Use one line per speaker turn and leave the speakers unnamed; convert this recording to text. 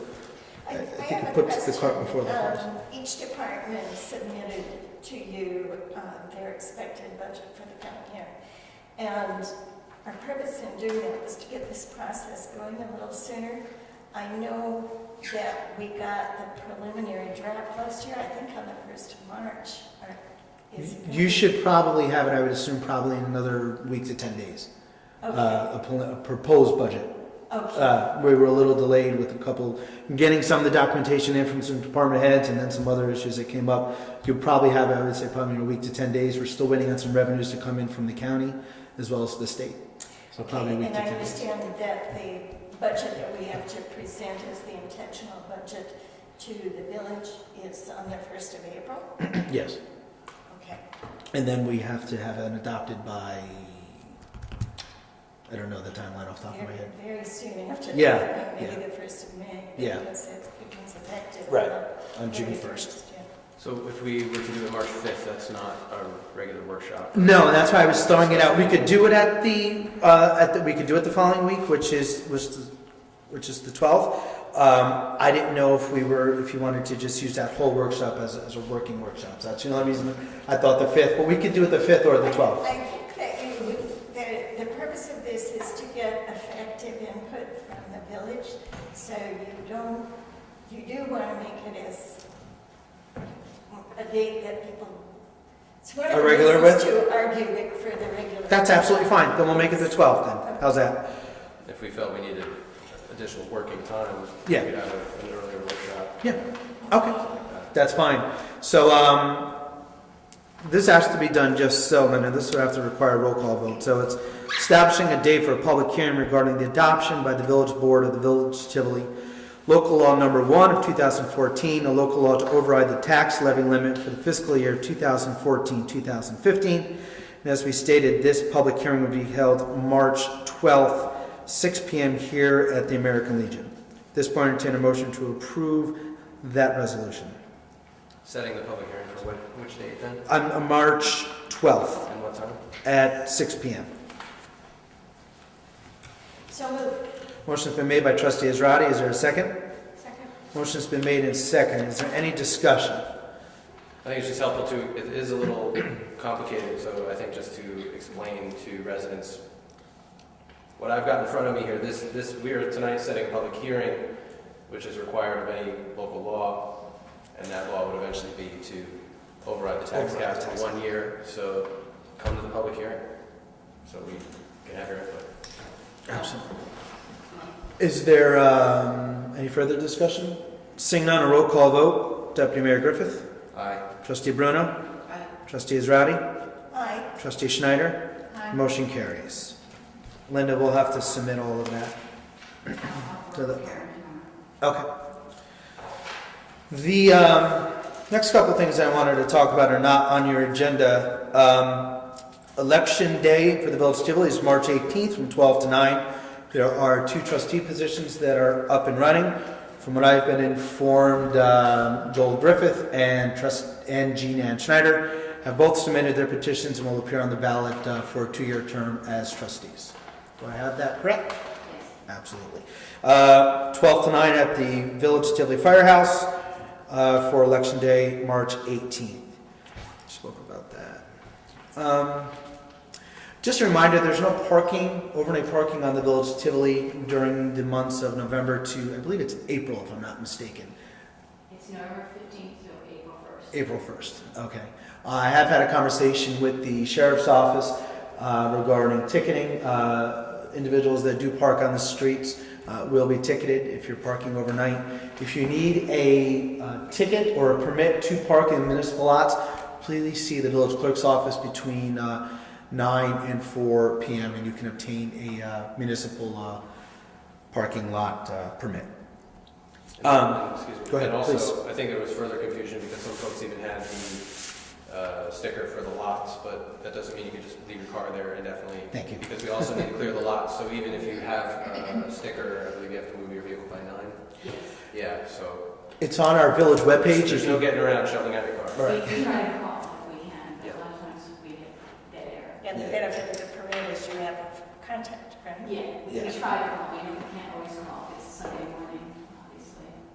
Uh, puts the cart before the horse.
Um, Each department submitted to you uh, their expected budget for the coming year. And our purpose in doing that was to get this process going a little sooner. I know that we got the preliminary draft last year, I think on the first of March. or is it gonna
You
be-
should probably have it, I would assume, probably in another week to 10 days.
Okay,
Uh, a, pl- a proposed budget.
okay,
Uh, we were a little delayed with a couple, getting some of the documentation in from some department heads and then some other issues that came up. You'll probably have, I would say, probably in a week to 10 days. We're still waiting on some revenues to come in from the county as well as the state. So probably a
Okay,
week
and
to
I
10 days.
understand that the budget that we have to present as the intentional budget to the village is on the first of April?
Yes.
Okay.
And then we have to have it adopted by, I don't know the timeline off the top of my
Very-
head.
Very soon after.
Yeah,
that, Maybe
yeah.
the first of May.
Yeah.
Because it becomes effective.
Right,
the
on June
very
1st.
yeah.
So if we were to do it March 5th, that's not a regular workshop.
No, and that's why I was throwing it out. We could do it at the, uh, at the, we could do it the following week, which is, which, the- which is the twelfth. Um, I didn't know if we were, if you wanted to just use that whole workshop as, as a working workshop. So That's the only reason I thought the fifth, but we could do it the fifth or the twelfth.
I think that you would, that the purpose of this is to get effective input from the village. So you don't, you do want to make it as a date that people. It's one of
A
the
regular
reasons to argue it for the regular.
That's absolutely fine. Then we'll make it the twelfth then. How's that?
If we felt we needed additional working time, we
Yeah.
could have a- an earlier workshop.
Yeah, okay,
like that.
that's fine. So, um, this has to be done just so, and this would have to require a roll call vote. So it's establishing a date for a public hearing regarding the adoption by the village board of the village of Tivoli. Local law number one of 2014, a local law to override the tax levy limit for the fiscal year 2014, 2015. And as we stated, this public hearing will be held March 12th, 6 PM here at the American Legion. At This point, I entertain a motion to approve that resolution.
Setting the public hearing for what- which date then?
On uh, March 12th
And what time?
at 6 PM.
So moved.
Motion's been made by trustee Israedi. Is there a second?
Second.
Motion's been made and second. Is there any discussion?
I think it's just helpful to, it is a little complicated, so I think just to explain to residents what I've got in front of me here, this, this, we are tonight setting a public hearing, which is required of any local law, and that law would eventually be to override the tax
Override
cap
the tax
for one year, so come to the public hearing, so we can have your input.
Absolutely. Is there um, any further discussion? Seeing none, a roll call vote. Deputy Mayor Griffith.
Aye.
Trustee Bruno. Trustee Israedi.
Aye.
Trustee Schneider.
Aye.
Motion carries. Linda, we'll have to submit all of that. To the- Okay. The um, next couple things I wanted to talk about are not on your agenda. Um, Election Day for the Village of Tivoli is March 18th from 12 to 9. There are two trustee positions that are up and running. From what I've been informed, um, Joel Griffith and trust and Jean Ann Schneider have both submitted their petitions and will appear on the ballot uh, for a two-year term as trustees. Do I have that correct? Absolutely. Uh, 12 to 9 at the Village Tivoli Firehouse uh, for Election Day, March 18th. Spoke about that. Um, Just a reminder, there's no parking, overnight parking on the Village Tivoli during the months of November to, I believe it's April, if I'm not mistaken.
It's November fifteenth to April first.
April 1st, okay. Uh, I have had a conversation with the sheriff's office uh, regarding ticketing. Uh, Individuals that do park on the streets uh, will be ticketed if you're parking overnight. If you need a uh, ticket or a permit to park in municipal lots, please see the village clerk's office between uh, 9 and 4 PM and you can obtain a uh, municipal uh, parking lot uh, permit.
And-
Um,
Excuse me.
go ahead,
And also,
please.
I think there was further confusion because some folks even had the uh, sticker for the lots, but that doesn't mean you can just leave your car there indefinitely.
Thank you.
Because we also need to clear the lots, so even if you have uh, a sticker, I believe you have to move your vehicle by nine. Yeah, so
It's on our village webpage.
there's no getting around shoveling out your car.
Right.
We can try to call if we can, but
Yeah.
a lot of times we get dead air.
And the benefit of the parade is you have contact, right?
Yeah, we
Yeah.
can try to